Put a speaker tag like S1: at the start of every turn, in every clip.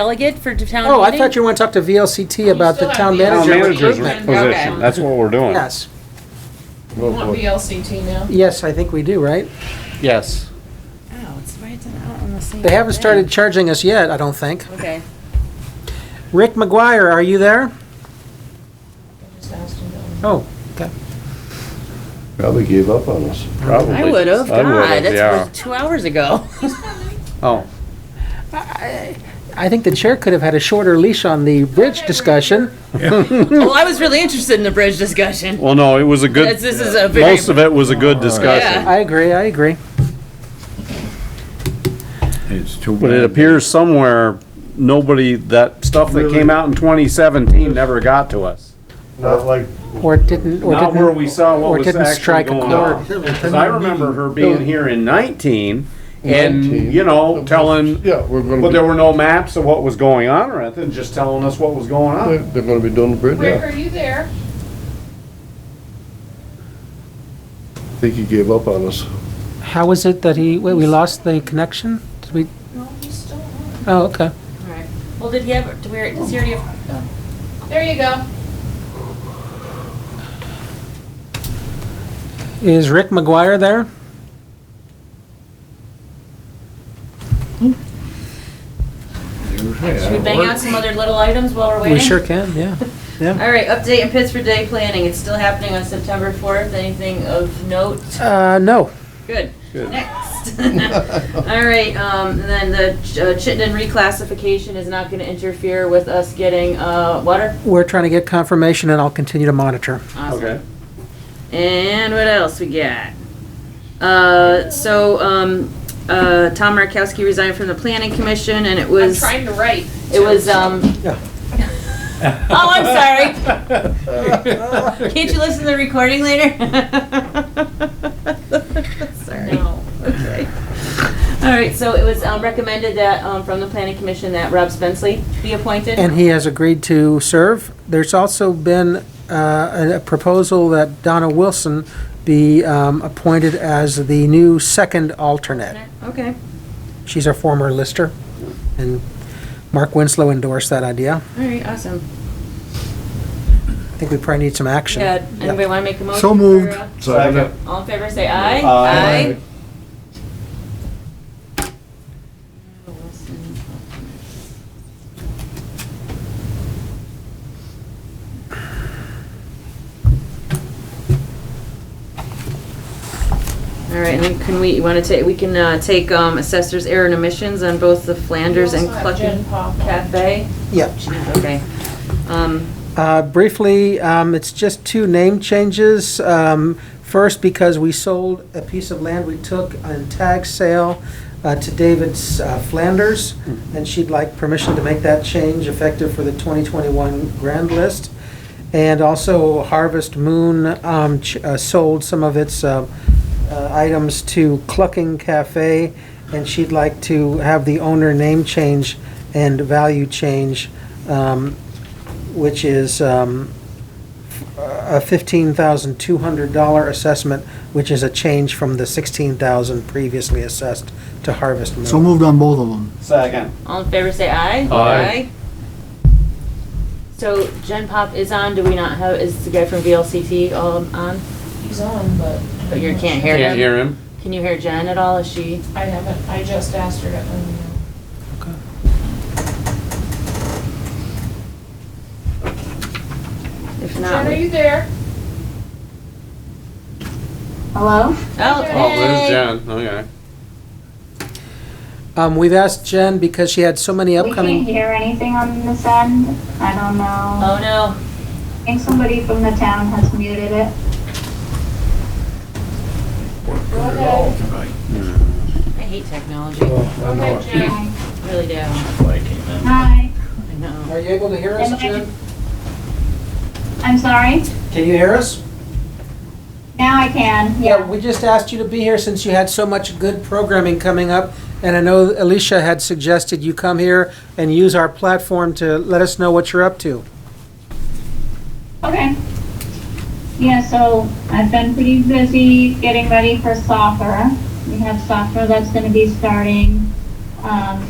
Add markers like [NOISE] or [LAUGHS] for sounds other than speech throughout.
S1: delegate for town meeting?
S2: Oh, I thought you were going to talk to VLCT about the
S3: still
S2: town
S3: have
S4: Town
S3: Manager
S2: manager
S4: manager's
S2: recruitment.
S4: position, that's what we're doing.
S2: Yes,
S3: You want VLCT now?
S2: yes, I think we do, right?
S4: Yes.
S1: Oh, it's right it's out on the same.
S2: They haven't
S1: thing.
S2: started charging us yet, I don't think.
S1: Okay.
S2: Rick McGuire, are you there?
S3: Just asked him to-
S2: Oh, okay.
S5: Probably gave up on us.
S4: Probably.
S1: I would have,
S4: I would've,
S1: God,
S4: yeah.
S1: that was two hours
S2: [LAUGHS]
S1: ago.
S4: Oh,
S2: I think the chair could have had a shorter leash on the bridge discussion.
S1: Well, I was really interested in the bridge discussion.
S4: well, no, it was a good,
S1: This this is a very.
S4: most of it was a good discussion.
S1: Yeah.
S2: I agree, I agree.
S5: It's too
S4: But it appears somewhere, nobody, that stuff that came out in 2017 never got to us.
S5: Not like.
S2: Or didn't, or
S4: Not
S2: didn't.
S4: where we saw
S2: or
S4: what was
S2: didn't
S4: actually
S2: strike a
S4: going
S2: chord.
S4: on. Because I remember her being here in 19
S5: Nineteen.
S4: and, you know, telling,
S5: Yeah, we're gonna,
S4: but there
S5: be-
S4: were no maps of what was going on or anything, just telling us what was going
S5: they're
S4: on.
S5: they're gonna be doing the bridge
S3: Rick,
S5: now.
S3: are you there?
S5: I think he gave up on us.
S2: How was it that he, wait, we lost the connection? Did we,
S3: No, he's still on.
S2: oh, okay.
S1: Alright. Well, did he have, do we, does he already have?
S3: There you go.
S2: Is Rick McGuire there?
S1: Should we bang out some other little items while we're waiting?
S2: We sure can, yeah.
S1: All right, update and pits for day planning. It's still happening on September 4th. Anything of note?
S2: Uh, no.
S1: Good. Next. [LAUGHS] All right, um, and then the uh, Chittenden reclassification is not gonna interfere with us getting, uh, water.
S2: We're trying to get confirmation and I'll continue to monitor.
S1: Awesome.
S4: Okay.
S1: And what else we got? Uh, so, um, uh, Tom Markowski resigned from the planning commission and it
S3: I'm
S1: was,
S3: trying to write.
S1: it was, um,
S2: Yeah.
S1: [LAUGHS] oh, I'm sorry. Can't you listen to the recording later? [LAUGHS] Sorry.
S3: No.
S1: Okay. All right, so it was um, recommended that, um, from the planning commission that Rob Spenceley be appointed.
S2: And he has agreed to serve. There's also been uh, a proposal that Donna Wilson be um, appointed as the new second alternate.
S1: Okay,
S2: She's our former lister, and Mark Winslow endorsed that idea.
S1: all right, awesome.
S2: I think we probably need some action.
S1: Yeah, anybody wanna make a motion?
S5: So moved.
S1: for, uh,
S5: Second.
S1: All in favor, say aye.
S4: Aye.
S1: All right, and then can we, you wanna take, we can, uh, take, um, assessor's error and omissions on both the Flanders and
S3: You also have
S1: Clucking
S3: Jen Pop.
S1: Cafe?
S2: Yeah.
S1: Okay. Um,
S2: Uh, Briefly, um, it's just two name changes. Um, First, because we sold a piece of land we took on tag sale uh, to David uh, Flanders, and she'd like permission to make that change effective for the 2021 grand list. And also Harvest Moon um, ch- uh, sold some of its uh, uh, items to Clucking Cafe, and she'd like to have the owner name change and value change um, which is um, a $15,200 assessment, which is a change from the $16,000 previously assessed to Harvest Moon.
S6: So moved on both of them.
S4: Second.
S1: all in favor, say aye.
S4: Aye.
S1: So Gen Pop is on, do we not have, is the guy from VLCT all on?
S3: He's on, but.
S1: But you can't hear
S4: Can't
S1: him?
S4: hear him.
S1: Can you hear Jen at all, is she?
S3: I haven't, I just asked her to, um,
S1: If
S3: Jen,
S1: not,
S3: are
S1: we-
S3: you there?
S7: Hello?
S1: oh,
S4: Oh, there's
S1: hey.
S4: Jen, okay.
S2: Um, We've asked Jen, because she had so many
S7: We can't
S2: upcoming,
S7: hear anything on this end. I don't know.
S1: Oh, no.
S7: I think somebody from the town has muted it.
S3: Go ahead.
S1: I hate technology,
S4: Oh.
S1: I
S3: Go ahead, Jen.
S1: really do. I
S7: Hi,
S1: know.
S2: are you able to hear us,
S7: Am I-
S2: Jen?
S7: I'm sorry.
S2: Can you hear us?
S7: Now I can,
S2: Yeah,
S7: yeah.
S2: we just asked you to be here since you had so much good programming coming up, and I know Alicia had suggested you come here and use our platform to let us know what you're up to.
S7: Okay. Yeah, so I've been pretty busy getting ready for soccer. We have soccer that's gonna be starting, um,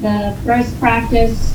S7: the first practice